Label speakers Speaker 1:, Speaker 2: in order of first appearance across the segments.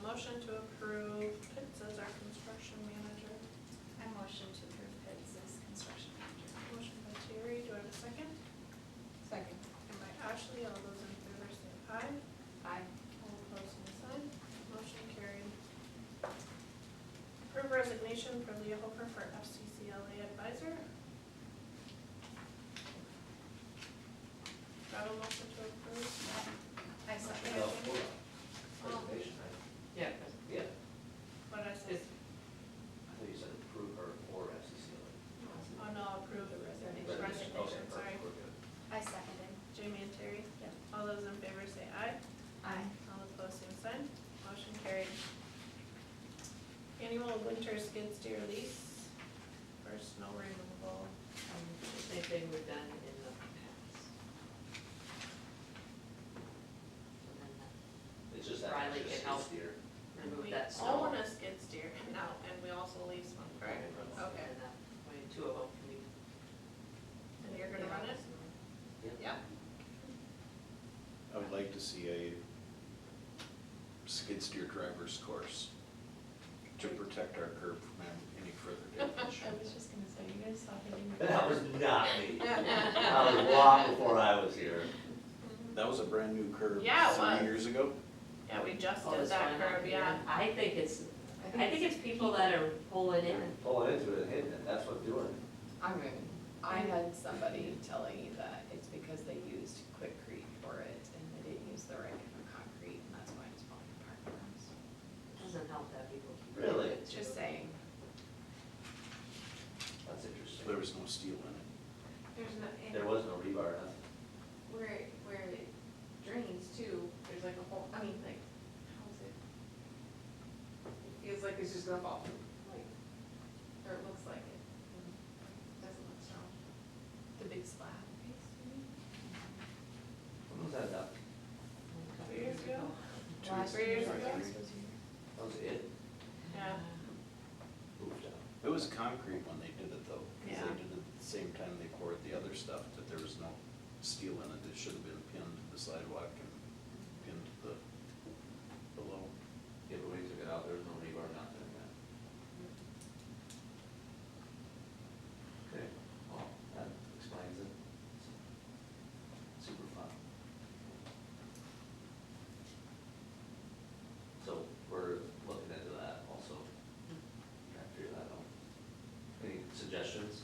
Speaker 1: Motion to approve Pitts as our construction manager.
Speaker 2: I motion to approve Pitts as construction manager.
Speaker 1: Motion by Terry, do I have a second?
Speaker 3: Second.
Speaker 1: And by Ashley, all those in favor say aye.
Speaker 3: Aye.
Speaker 1: All opposed, same sign. Motion carried. Approve resignation for Leah Hofer for FCCLA advisor. Got a motion to approve?
Speaker 2: I second.
Speaker 4: No, hold on. Reservation, I,
Speaker 3: Yeah.
Speaker 4: yeah,
Speaker 1: What did I say?
Speaker 3: It's-
Speaker 4: I thought you said approve or, or FCC.
Speaker 1: Oh, no, approve the resignation,
Speaker 4: Reservation, okay,
Speaker 1: resignation,
Speaker 4: perfect,
Speaker 1: sorry.
Speaker 4: we're good.
Speaker 2: I seconded.
Speaker 1: Jamie and Terry? Yep. All those in favor say aye.
Speaker 2: Aye.
Speaker 1: All opposed, same sign. Motion carried. Annual winter skid steer lease for snow removal.
Speaker 3: Um, the Same thing we've done in the past. So then
Speaker 4: It's just that. extra
Speaker 3: Riley can
Speaker 4: six
Speaker 3: help.
Speaker 4: year.
Speaker 3: that-
Speaker 1: And
Speaker 3: Remove
Speaker 1: we
Speaker 3: that
Speaker 1: own
Speaker 3: snow.
Speaker 1: a skid steer now, and we also lease one, correct? Okay.
Speaker 3: And that way two of them can be.
Speaker 1: And you're gonna run it? Yep.
Speaker 5: I would like to see a skid steer driver's course to protect our curb from any further damage.
Speaker 6: I was just gonna say, you guys saw hitting the.
Speaker 4: That was not me. I was long before I was here.
Speaker 5: That was a brand-new curb
Speaker 1: Yeah, it was.
Speaker 5: three years ago.
Speaker 1: Yeah, we just
Speaker 3: Oh,
Speaker 1: did
Speaker 3: this
Speaker 1: that
Speaker 3: one up
Speaker 1: curb,
Speaker 3: here.
Speaker 1: yeah.
Speaker 3: I think it's, I think it's people that are pulling in.
Speaker 4: Pulling into it and hitting it, that's what's doing it.
Speaker 6: I mean, I had somebody telling me that it's because they used quickcrete for it and they didn't use the right kind of concrete and that's why it's falling apart for us.
Speaker 3: It Doesn't help that people. keep-
Speaker 4: Really?
Speaker 6: It's just saying,
Speaker 4: That's
Speaker 5: So There
Speaker 4: interesting.
Speaker 5: was no steel in it.
Speaker 2: There's no,
Speaker 4: There
Speaker 2: and
Speaker 4: was no rebar, nothing.
Speaker 2: where, it- where it drains too, there's like a hole, I mean, like, how's it? It Feels like it's just gonna fall, like, or it looks like it. Doesn't look strong.
Speaker 6: the big slab.
Speaker 4: When was that done?
Speaker 1: Two years ago?
Speaker 5: Two
Speaker 6: Last
Speaker 1: Three years
Speaker 6: year,
Speaker 1: ago?
Speaker 6: this was here.
Speaker 4: That was it?
Speaker 1: Yeah.
Speaker 4: Moved out.
Speaker 5: It was concrete when they did it though, because
Speaker 1: Yeah.
Speaker 5: they did it at the same time they poured the other stuff, that there was no steel in it. It should have been pinned to the sidewalk and pinned to the, below.
Speaker 4: Yeah, but when you took it out, there was no rebar, nothing, yeah. Okay, well, that explains it. Super fun. So we're looking into that also, trying to figure that out. Any suggestions?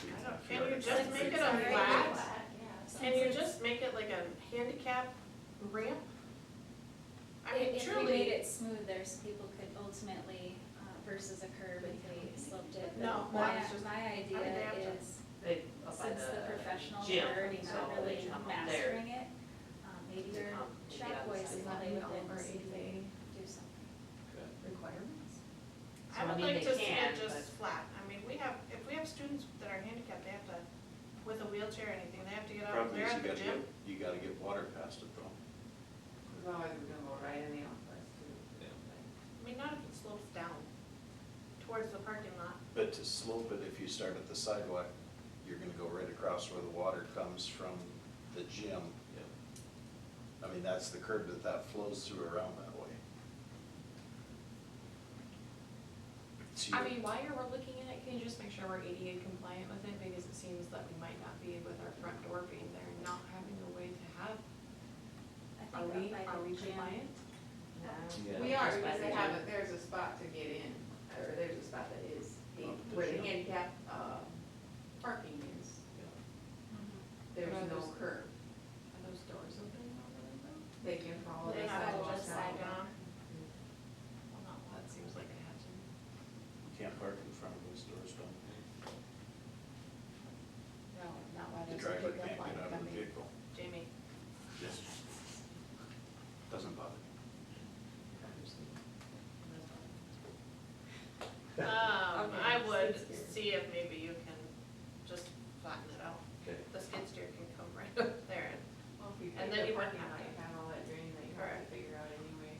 Speaker 1: I don't- Can you just
Speaker 2: Like,
Speaker 1: make it
Speaker 2: it's
Speaker 1: a
Speaker 2: already
Speaker 1: flat?
Speaker 2: flat, Yeah.
Speaker 1: Can you just make it like a handicap ramp? I mean,
Speaker 7: If if we made
Speaker 1: truly,
Speaker 7: it smoother, so people could ultimately, uh, versus a curb if they slipped it. but
Speaker 1: No,
Speaker 7: My,
Speaker 1: mine's just-
Speaker 7: my idea
Speaker 1: mean, they have to-
Speaker 7: is,
Speaker 3: They, up by
Speaker 7: since the professionals
Speaker 3: gym,
Speaker 7: are already
Speaker 3: so
Speaker 7: not
Speaker 3: they
Speaker 7: really
Speaker 3: come up there.
Speaker 7: mastering it, um, maybe
Speaker 3: They
Speaker 7: their
Speaker 3: come to the other
Speaker 7: shop boys
Speaker 3: side.
Speaker 7: will play with it
Speaker 6: Or
Speaker 7: and see if they
Speaker 6: if
Speaker 7: do something.
Speaker 4: Okay.
Speaker 6: Requirements?
Speaker 1: I
Speaker 3: So, I
Speaker 1: would
Speaker 3: mean,
Speaker 1: like
Speaker 3: they
Speaker 1: to see
Speaker 3: can,
Speaker 1: it just
Speaker 3: but-
Speaker 1: flat. I mean, we have, if we have students that are handicapped, they have to, with a wheelchair or anything, they have to get out
Speaker 5: Problem
Speaker 1: there
Speaker 5: is
Speaker 1: at
Speaker 5: you
Speaker 1: the
Speaker 5: gotta
Speaker 1: gym.
Speaker 5: get, you gotta get water past it though.
Speaker 2: It's always gonna go right in the office too.
Speaker 1: I mean, not if it slopes down towards the parking lot.
Speaker 5: But to slope it, if you start at the sidewalk, you're gonna go right across where the water comes from the gym. I mean, that's the curb that that flows through around that way. So
Speaker 6: I
Speaker 5: you-
Speaker 6: mean, while you're looking at it, can you just make sure we're ADA compliant with it, because it seems that we might not be with our front door being there, and not having a way to have,
Speaker 7: I think
Speaker 6: are
Speaker 7: up
Speaker 6: we,
Speaker 7: by
Speaker 6: are
Speaker 7: the
Speaker 6: we
Speaker 7: gym.
Speaker 6: compliant?
Speaker 4: Yeah.
Speaker 2: We are,
Speaker 3: Just by
Speaker 2: because
Speaker 3: the
Speaker 2: they have,
Speaker 3: gym.
Speaker 2: a- there's a spot to get in, or there's a spot that is, the-
Speaker 5: Oh, the
Speaker 2: where the
Speaker 5: gym.
Speaker 2: handicap, uh, parking is. There's
Speaker 6: Right.
Speaker 2: no curb,
Speaker 6: Are those doors open on the window?
Speaker 2: they can follow
Speaker 1: They
Speaker 2: the
Speaker 1: have to
Speaker 2: sidewalk
Speaker 1: just
Speaker 2: down.
Speaker 1: side down. Well, not
Speaker 6: Well, that seems like it had to.
Speaker 5: You can't park in front of those doors, don't you?
Speaker 6: No, not why
Speaker 5: The
Speaker 6: there's a
Speaker 5: driver
Speaker 6: big
Speaker 5: can't
Speaker 6: red light
Speaker 5: get out of the
Speaker 6: coming.
Speaker 5: vehicle.
Speaker 1: Jamie,
Speaker 5: Yes. Doesn't bother me.
Speaker 1: um, I
Speaker 2: Okay,
Speaker 1: would
Speaker 2: skid steer.
Speaker 1: see if maybe you can just flatten it out.
Speaker 4: Okay.
Speaker 1: The skid steer can come right up there and
Speaker 2: Well, if we
Speaker 1: And
Speaker 2: pick
Speaker 1: then
Speaker 2: the
Speaker 1: you wouldn't
Speaker 2: parking